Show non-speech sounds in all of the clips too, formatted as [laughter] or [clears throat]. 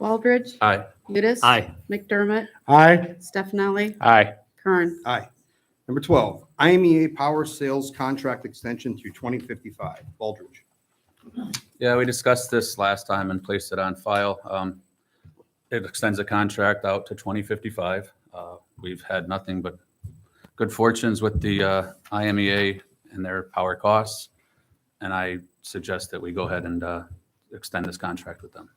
Baldridge. Aye. Udis. Aye. McDermott. Aye. Stefani. Aye. Kern. Aye. Number 12, IMEA E Power Sales Contract Extension through 2055. Baldridge. Yeah, we discussed this last time and placed it on file. Um, It extends the contract out to 2055. Uh, We've had nothing but good fortunes with the uh, IMEA and their power costs. And I suggest that we go ahead and uh, extend this contract with them.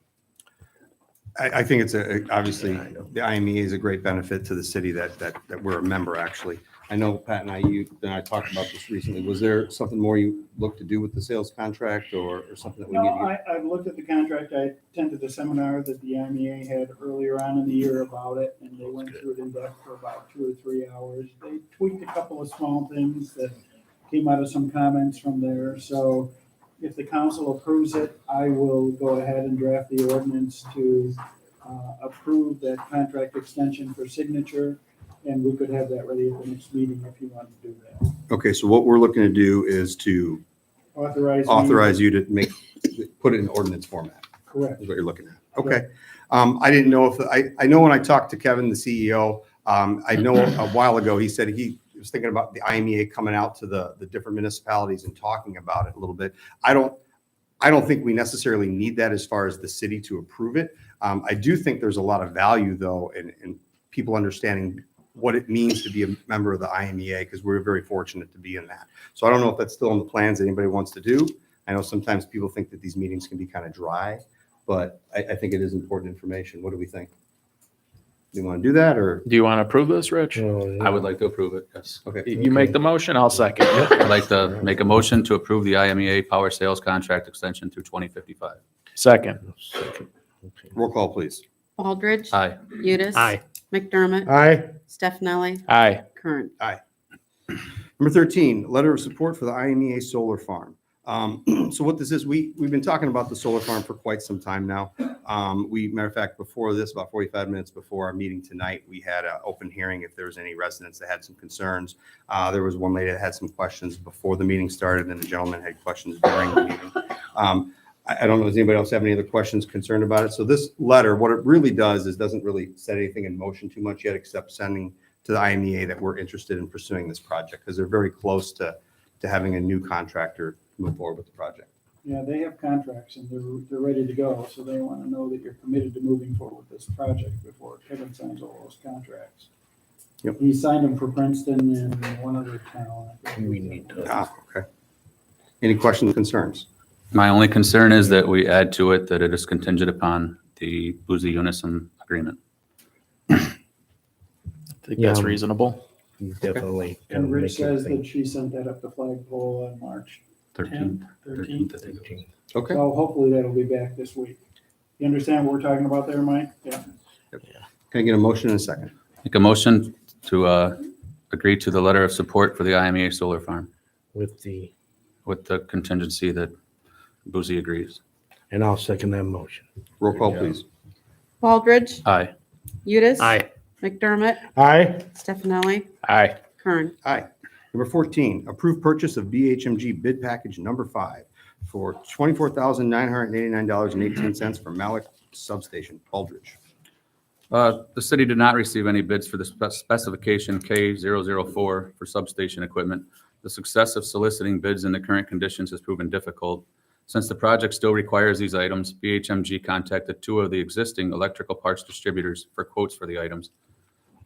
I, I think it's a, obviously, the IME is a great benefit to the city that, that, that we're a member, actually. I know Pat and I, you, and I talked about this recently. Was there something more you looked to do with the sales contract or, or something that we No, need? to I, I've looked at the contract. I attended the seminar that the IMEA had earlier on in the year about it, and they went through it in depth for about two or three hours. They tweaked a couple of small things that came out of some comments from there, so if the council approves it, I will go ahead and draft the ordinance to uh, approve that contract extension for signature, and we could have that ready at the next meeting if you want to do that. Okay, so what we're looking to do is to Authorize. me- authorize you to make, put it in ordinance format. Correct. is what you're looking at. Okay. Um, I didn't know if, I, I know when I talked to Kevin, the CEO, um, I know a while ago, he said he was thinking about the IMEA coming out to the, the different municipalities and talking about it a little bit. I don't, I don't think we necessarily need that as far as the city to approve it. Um, I do think there's a lot of value though in, in people understanding what it means to be a member of the IMEA because we're very fortunate to be in that. So I don't know if that's still on the plans that anybody wants to do. I know sometimes people think that these meetings can be kind of dry but I, I think it is important information. What do we think? Do you want to do that or? Do you want to approve this, Rich? I would like to approve it, yes. Okay, You make the motion, I'll second. I'd like to make a motion to approve the IMEA power sales contract extension through 2055. Second. roll call, please. Baldridge. Aye. Udis. Aye. McDermott. Aye. Stefani. Aye. Kern. Number 13, letter of support for the IMEA Solar Farm. Um, [clears throat] So what this is, we, we've been talking about the solar farm for quite some time now. Um, We, matter of fact, before this, about 45 minutes before our meeting tonight, we had an open hearing if there was any residents that had some concerns. Uh, There was one lady that had some questions before the meeting started, and the gentleman had questions during the meeting. Um, I, I don't know, does anybody else have any other questions concerned about it? So this letter, what it really does is doesn't really set anything in motion too much yet, except sending to the IMEA that we're interested in pursuing this project because they're very close to, to having a new contractor move forward with the project. Yeah, they have contracts and they're, they're ready to go, so they want to know that you're committed to moving forward with this project before Kevin signs all those contracts. Yep. He signed them for Princeton and one other town. I think. We need to- Ah, okay. Any questions, concerns? My only concern is that we add to it that it is contingent upon the Boozy Unison agreement. I think that's Yeah. reasonable. He's definitely. gonna And Rich make it says that she sent that up the flagpole on March 13th. 10th, 13th. I think it was. big. Okay. So hopefully that'll be back this week. You understand what we're talking about there, Mike? Yeah. Can I get a motion in a second? Make a motion to uh, agree to the letter of support for the IMEA solar farm With the, with the contingency that Boozy agrees. and I'll second that motion. Roll call, please. Baldridge. Aye. Udis. Aye. McDermott. Aye. Stefani. Aye. Kern. Number 14, approve purchase of BHMG bid package number five for $24,989.18 for Malik Substation, Aldridge. Uh, The city did not receive any bids for the spec- specification K004 for substation equipment. The success of soliciting bids in the current conditions has proven difficult. Since the project still requires these items, BHMG contacted two of the existing electrical parts distributors for quotes for the items.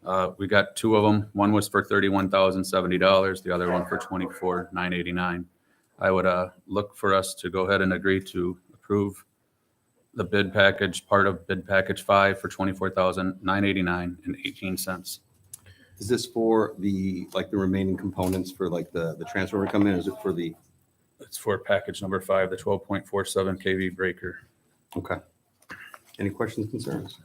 Uh, We got two of them. One was for $31,070, the other one for $24,989. I would uh, look for us to go ahead and agree to approve the bid package, part of bid package five for twenty-four thousand nine eighty-nine and eighteen cents. Is this for the, like, the remaining components for like the, the transformer come in? Is it for the, It's for package number five, the twelve point four seven KV breaker. okay. Any questions, concerns?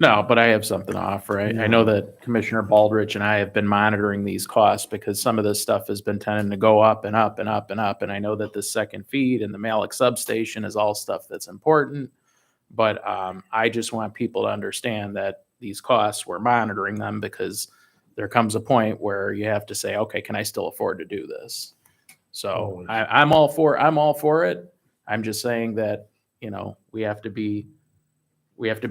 No, but I have something to offer. I, I know that Commissioner Baldrich and I have been monitoring these costs because some of this stuff has been tending to go up and up and up and up. And I know that the second feed and the Malik substation is all stuff that's important. But um, I just want people to understand that these costs, we're monitoring them because there comes a point where you have to say, okay, can I still afford to do this? So Always. I, I'm all for, I'm all for it. I'm just saying that, you know, we have to be, we have to